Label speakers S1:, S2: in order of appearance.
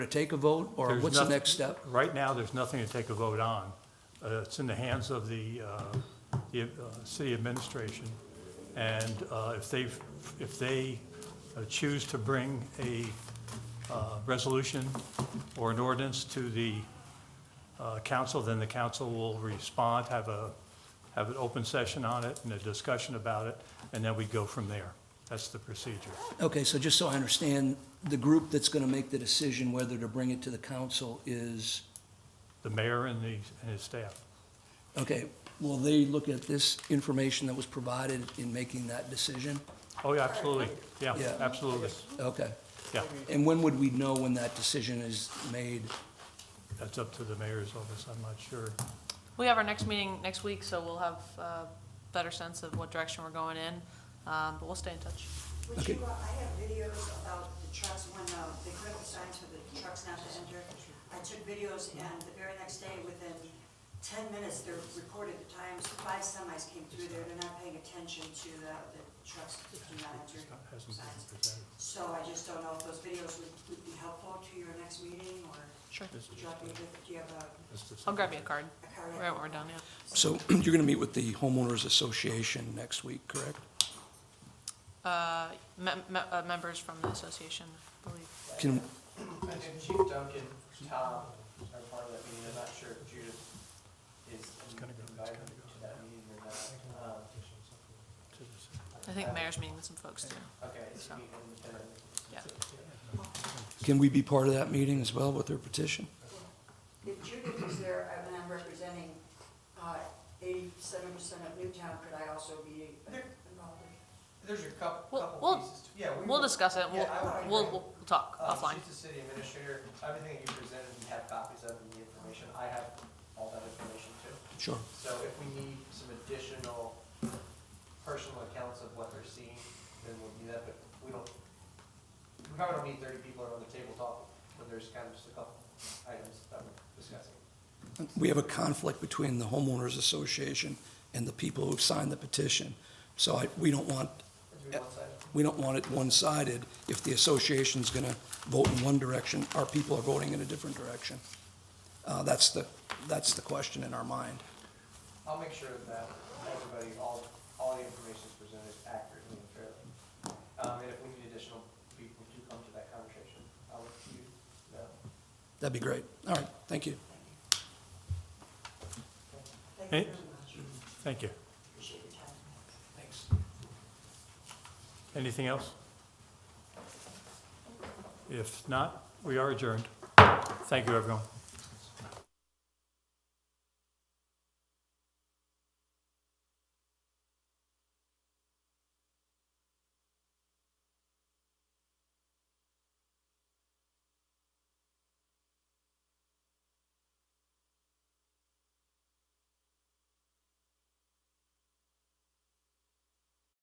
S1: to take a vote, or
S2: There's
S1: what's the
S2: nothing-
S1: next step?
S2: Right now, there's nothing to take a vote on. Uh, It's in the hands of the, uh, the uh, city administration. And uh, if they, if they uh, choose to bring a uh, resolution or an ordinance to the uh, council, then the council will respond, have a, have an open session on it and a discussion about it, and then we go from there. That's the procedure.
S1: Okay, so just so I understand, the group that's going to make the decision whether to bring it to the council is,
S2: The mayor and the, and his staff.
S1: okay, will they look at this information that was provided in making that decision?
S2: Oh, yeah, absolutely. Yeah,
S1: Yeah.
S2: absolutely.
S1: Okay.
S2: Yeah.
S1: And when would we know when that decision is made?
S2: That's up to the mayor's office, I'm not sure.
S3: We have our next meeting next week, so we'll have a better sense of what direction we're going in, um, but we'll stay in touch.
S4: Would you, uh, I have videos about the trucks, when uh, they put up signs for the trucks not to enter. I took videos, and the very next day, within ten minutes, they're recorded the times, five semis came through there, they're not paying attention to the, the trucks that do not enter
S2: Hasn't been
S4: signs.
S2: presented.
S4: So I just don't know if those videos would, would be helpful to your next meeting, or
S3: Sure.
S4: drop me, with- do you have a,
S2: It's just-
S3: I'll grab you a card
S4: a card?
S3: right when we're done, yeah.
S1: So you're going to meet with the homeowners association next week, correct?
S3: Uh, me- me- uh, members from the association, I believe.
S1: Can,
S5: I think Chief Duncan, Tom are part of that meeting, I'm not sure if Judith is
S2: gonna go, it's
S5: invited
S2: gonna go.
S5: to that meeting or not. Um,
S3: I think mayor's meeting with some folks too.
S5: Okay, it's meeting independently.
S3: Yeah.
S1: can we be part of that meeting as well with their petition?
S4: If Judith is there, I mean, I'm representing uh, eighty-seven percent of Newtown, could I also be involved?
S5: There's a couple,
S3: We'll-
S5: couple
S3: we'll-
S5: pieces. to- yeah, we
S3: We'll
S5: will-
S3: discuss it, we'll,
S5: Yeah, I would
S3: we'll,
S5: agree.
S3: we'll we'll talk
S5: Um,
S3: offline.
S5: She's the city administrator, everything that you presented, we have copies of and the information, I have all that information too.
S1: Sure.
S5: So if we need some additional personal accounts of what they're seeing, then we'll do that, but we don't, we probably don't need thirty people around the table talking, when there's kind of just a couple items that we're discussing.
S1: We have a conflict between the homeowners association and the people who've signed the petition. So I, we don't want
S5: Let's do one side.
S1: We don't want it one-sided. If the association's going to vote in one direction, our people are voting in a different direction. Uh, That's the, that's the question in our mind.
S5: I'll make sure that everybody, all, all the information is presented accurately and fairly. Um, and if we need additional people to come to that conversation, I'll let you know.
S1: That'd be great. All right, thank you.
S4: Thank
S2: Hey.
S4: you very much.
S2: Thank you.
S4: Appreciate your time.
S1: Thanks.
S2: Anything else? If not, we are adjourned. Thank you, everyone.